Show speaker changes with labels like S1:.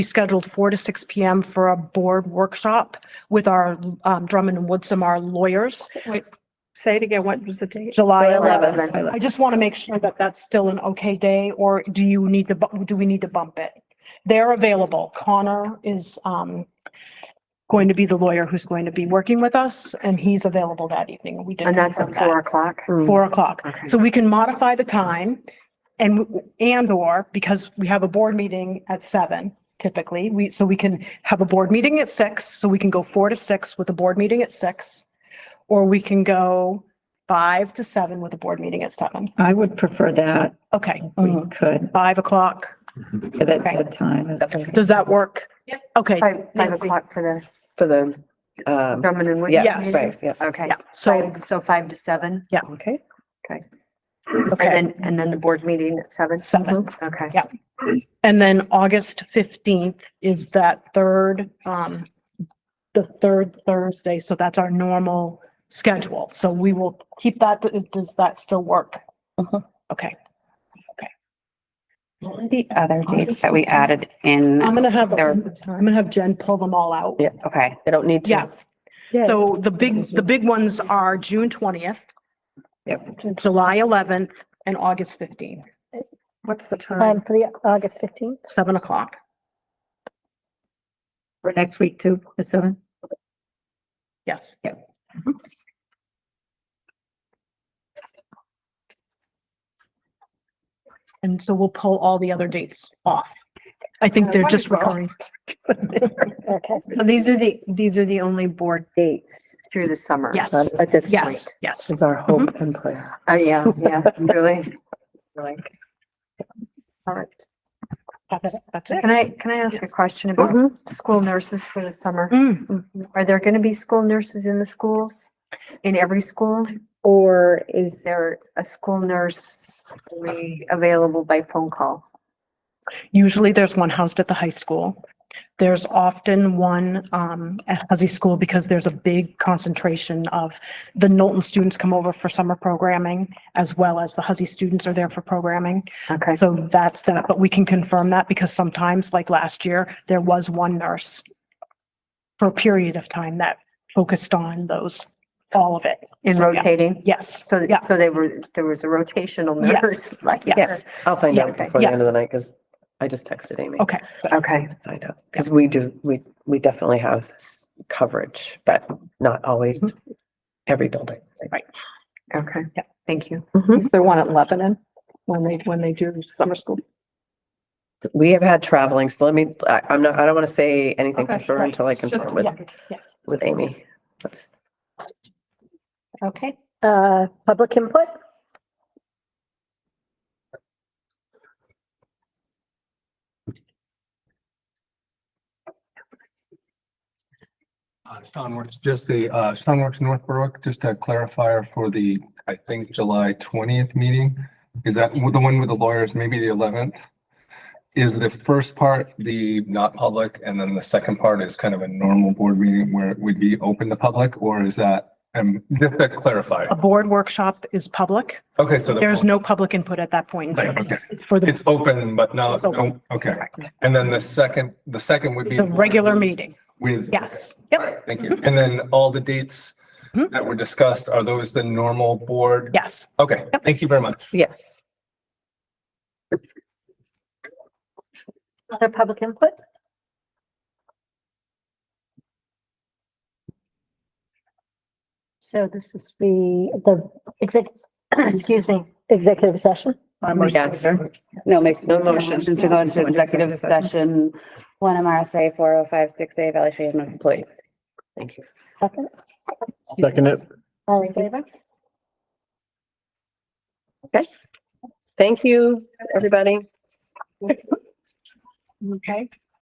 S1: We scheduled 4 to 6 PM for a board workshop with our um, Drummond and Woodsum, our lawyers.
S2: Wait, say it again. What was the date?
S1: July
S3: Eleven.
S1: 11th. I just want to make sure that that's still an okay day, or do you need to, bu- do we need to bump it? They're available. Connor is um, going to be the lawyer who's going to be working with us, and he's available that evening. We did.
S3: And that's at
S1: confirm that.
S3: four o'clock.
S1: four o'clock.
S3: Mm-hmm. Okay.
S1: So we can modify the time and, and or because we have a board meeting at seven typically, we, so we can have a board meeting at six, so we can go four to six with a board meeting at six. Or we can go five to seven with a board meeting at seven.
S4: I would prefer that.
S1: Okay,
S3: Mm-hmm.
S4: We could,
S1: five o'clock.
S4: but at
S1: Okay.
S4: that time. is-
S1: Does that work? Yep. Okay,
S3: Five, five
S1: Nancy.
S3: o'clock for the
S5: For the, um,
S3: Drummond and Wood.
S1: Yeah,
S3: meeting?
S5: right, yeah.
S3: Okay.
S1: yeah, so,
S3: So, so five to seven
S5: Okay.
S1: okay,
S3: and then, and then the board meeting at seven.
S1: seven.
S3: Okay.
S1: Yeah. And then August fifteenth is that third, um, the third Thursday, so that's our normal schedule. So we will keep that, does- does that still work?
S5: Mhm.
S1: Okay,
S6: What were The other dates that we added in,
S1: I'm gonna have,
S6: There was
S1: I'm gonna have Jen pull them all out.
S5: Yeah.
S6: okay,
S5: They don't need to.
S1: Yeah. So the big, the big ones are June twentieth. Yep. July eleventh and August fifteenth,
S2: What's the time?
S7: Um, for the August fifteenth,
S1: seven o'clock.
S4: For next week too, the seventh?
S1: Yes. Mm-hmm. And so we'll pull all the other dates off. I think they're just recurring.
S7: okay.
S3: So these are the, these are the only board dates through the summer.
S1: Yes.
S3: At this point.
S1: Yes, yes.
S5: This is our hope and prayer.
S3: Uh, yeah, yeah, really. Really. All right.
S1: That's that's it.
S3: Can I, can I ask a
S1: Yes.
S3: question about school nurses for the summer?
S1: Mm,
S3: Are there going to be school nurses in the schools, in every school? Or is there a school nurse only available by phone call?
S1: Usually there's one housed at the high school. There's often one um at Huzzy School because there's a big concentration of the Knowlton students come over for summer programming as well as the Huzzy students are there for programming.
S3: Okay.
S1: So that's that, but we can confirm that because sometimes, like last year, there was one nurse for a period of time that focused on those, all of it.
S3: In
S1: So, yeah.
S3: rotating?
S1: Yes,
S3: So,
S1: yeah,
S3: so they were, there was a rotational
S1: Yes.
S3: nurse? like
S1: yes,
S5: I'll find out
S3: Yeah.
S5: before the
S1: Yeah.
S5: end of the night because I just texted Amy.
S1: okay.
S3: Okay,
S5: Find out, because we do, we, we definitely have s- coverage, but not always
S2: Mm-hmm.
S5: every building.
S3: okay.
S1: Yeah.
S3: Thank you.
S2: Is there one at Lebanon when they, when they do summer school?
S5: We have had traveling, so let me, I, I'm not, I don't want to say anything for
S2: Okay,
S5: sure
S2: right.
S5: until I
S2: Just-
S5: confirm with,
S1: yeah, yeah.
S5: with Amy. That's-
S3: Okay.
S7: Uh, public input?
S8: Uh, Stoneworks, just the, uh, Stoneworks North Berwick, just a clarifier for the, I think, July twentieth meeting. Is that the one with the lawyers, maybe the eleventh? Is the first part the not public and then the second part is kind of a normal board meeting where it would be open to public or is that, um, just to clarify?
S1: A board workshop is public.
S8: Okay, so. the-
S1: There's no public input at that point. in time.
S8: Right, okay.
S1: It's For the,
S8: It's open, but no,
S1: It's open.
S8: no, okay. And then the second, the second would be.
S1: it's a regular meeting,
S8: With.
S1: yes.
S8: All
S1: Yep,
S8: right, Thank you. Mm-hmm. And then all the dates
S1: Mhm.
S8: that were discussed, are those the normal board?
S1: yes.
S8: Okay, thank you very much.
S5: Yes.
S7: Other public input? So this is the, the exec, excuse me, executive session.
S5: Yes.
S6: no, make.
S5: No motion.
S6: To go into executive session, one MRSA four oh five six A evaluation of employees.
S5: Thank you.
S7: Second,
S9: Second it.
S7: all in favor?
S5: Thank you, everybody.
S2: Okay.